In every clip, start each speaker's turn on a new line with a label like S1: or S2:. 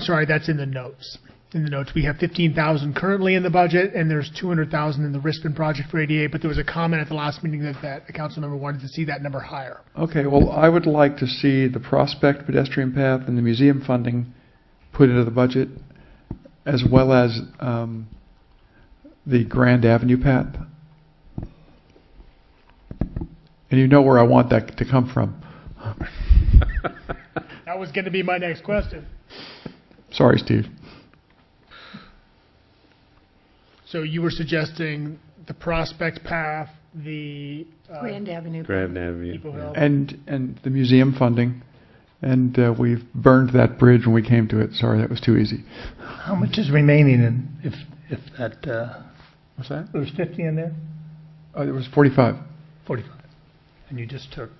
S1: sorry, that's in the notes. In the notes, we have 15,000 currently in the budget, and there's 200,000 in the Rispin project for ADA, but there was a comment at the last meeting that, that a council member wanted to see that number higher.
S2: Okay, well, I would like to see the Prospect pedestrian path and the museum funding put into the budget, as well as um, the Grand Avenue path. And you know where I want that to come from.
S1: That was going to be my next question.
S2: Sorry, Steve.
S1: So you were suggesting the Prospect Path, the, uh,
S3: Grand Avenue.
S4: Grand Avenue.
S1: Depot
S4: yeah.
S1: Hill.
S2: And, and the museum funding, and uh, we've burned that bridge when we came to it. Sorry, that was too easy.
S5: How much is remaining in, if, if that, uh,
S2: What's that?
S5: there was 50 in there?
S2: Oh, there was 45.
S5: 45. And you just took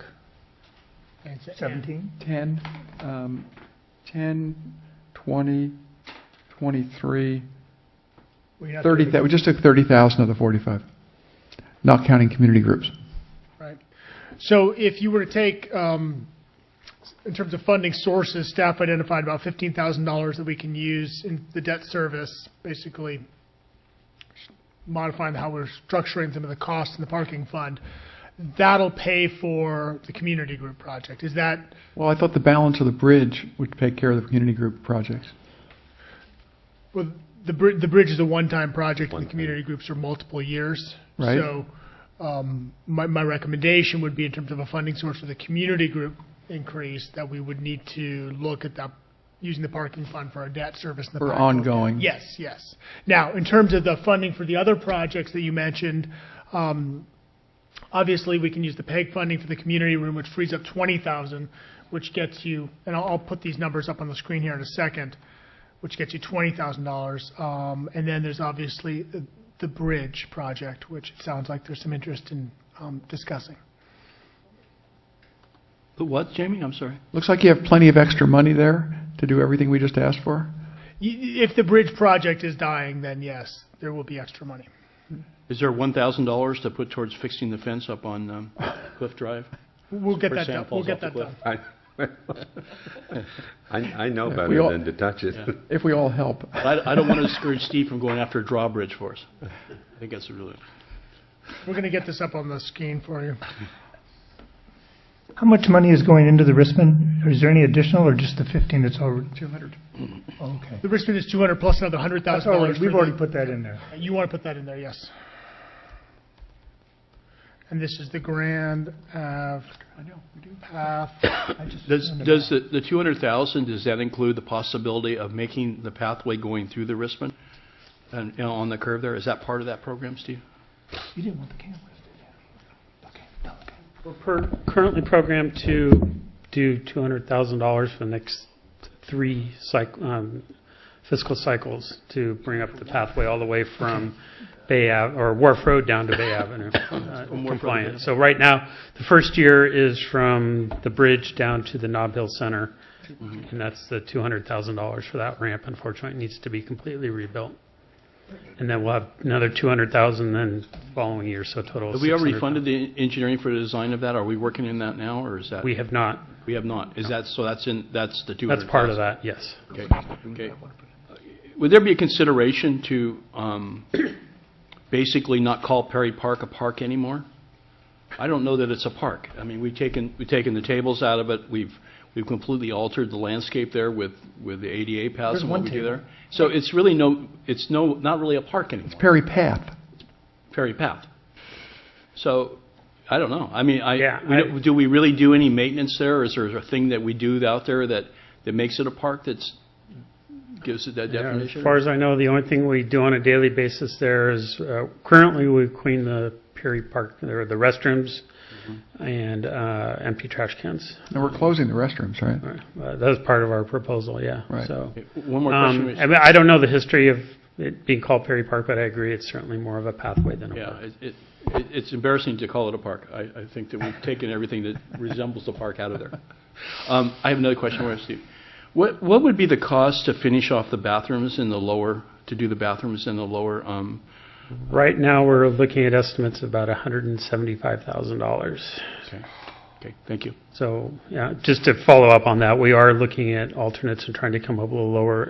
S1: and-
S5: 17?
S2: 10, um, 10, 20, 23,
S1: Well, you're not
S2: 30, that, we just took 30,000 of the 45, not counting community groups.
S1: Right. So if you were to take, um, in terms of funding sources, staff identified about fifteen thousand dollars that we can use in the debt service, basically modifying how we're structuring some of the costs in the parking fund. That'll pay for the community group project. Is that,
S2: Well, I thought the balance of the bridge would take care of the community group projects.
S1: well, the bri- the bridge is a one-time project and the
S4: One-time.
S1: community groups are multiple years.
S2: Right.
S1: So, um, my, my recommendation would be in terms of a funding source for the community group increase, that we would need to look at that, using the parking fund for our debt service. in the
S2: For
S1: park.
S2: ongoing.
S1: Yes, yes. Now, in terms of the funding for the other projects that you mentioned, um, obviously, we can use the PEG funding for the community room, which frees up 20,000, which gets you, and I'll, I'll put these numbers up on the screen here in a second, which gets you $20,000. Um, And then there's obviously the- the bridge project, which it sounds like there's some interest in um, discussing.
S6: The what, Jamie? I'm sorry.
S2: Looks like you have plenty of extra money there to do everything we just asked for.
S1: Y- y- If the bridge project is dying, then yes, there will be extra money.
S6: Is there $1,000 to put towards fixing the fence up on um, Cliff Drive?
S1: We'll get
S6: Where
S1: that
S6: Sam
S1: done, we'll
S6: falls
S1: get
S6: off the
S1: that
S6: cliff.
S1: done.
S4: I I I know
S2: Yeah, we all-
S4: better than to touch it.
S6: Yeah.
S2: If we all help,
S6: But I I don't want to discourage Steve from going after a drawbridge for us. I think that's really,
S1: We're going to get this up on the screen for you.
S5: How much money is going into the Rispin? Or is there any additional, or just the 15 that's already? 200. Okay.
S1: The Richmond is 200 plus another $100,000.
S5: That's already,
S1: for
S5: we've
S1: the-
S5: already put that in there.
S1: You want to put that in there, yes. And this is the Grand Ave path.
S5: I just
S6: does
S5: wondered
S6: does
S5: about-
S6: the the 200,000, does that include the possibility of making the pathway going through the Rissman and you know, on the curve there? Is that part of that program, Steve?
S5: You didn't want the cameras, did you? Okay, okay.
S7: We're per- currently programmed to do $200,000 for the next three cyc- um, fiscal cycles to bring up the pathway all the way from Bay Ave, or Wharf Road down to Bay Avenue uh,
S6: From Wharf Road down.
S7: compliant. So right now, the first year is from the bridge down to the Nob Hill Center,
S6: Mm-hmm.
S7: and that's the $200,000 for that ramp. Unfortunately, it needs to be completely rebuilt. And then we'll have another 200,000 then following year, so total
S6: Have we already
S7: 600,000.
S6: funded the engineering for the design of that? Are we working in that now, or is that?
S7: We have not.
S6: We have not. Is that, so that's in, that's the 200,000?
S7: That's part of that, yes.
S6: Okay, okay. Would there be a consideration to um, basically not call Perry Park a park anymore? I don't know that it's a park. I mean, we've taken, we've taken the tables out of it, we've, we've completely altered the landscape there with, with the ADA paths
S5: There's
S6: and what
S5: one
S6: we do
S5: table.
S6: there. So it's really no, it's no, not really a park anymore,
S2: Perry Path.
S6: Perry Path. So, I don't know. I mean,
S7: Yeah,
S6: I, we don't- do we really do any maintenance there, or is there a thing that we do out there that, that makes it a park that's, gives it that
S7: Yeah,
S6: definition?
S7: As far as I know, the only thing we do on a daily basis there is, uh, currently we clean the Perry Park, there are the restrooms
S6: Mm-hmm.
S7: and uh, empty trash cans.
S2: And we're closing the restrooms, right?
S7: Uh, That was part of our proposal, yeah.
S2: Right.
S7: So,
S6: One more question.
S7: um,
S6: Rich.
S7: I mean, I don't know the history of it being called Perry Park, but I agree, it's certainly more of a pathway than a
S6: Yeah, it, it, it- it's embarrassing to call it a park. I, I think that we've taken everything that resembles a park out of there. Um, I have another question for you, Steve. What, what would be the cost to finish off the bathrooms in the lower, to do the bathrooms in the lower, um,
S7: Right now, we're looking at estimates of about $175,000.
S6: okay, okay, thank you.
S7: So, yeah, just to follow up on that, we are looking at alternates and trying to come up with a lower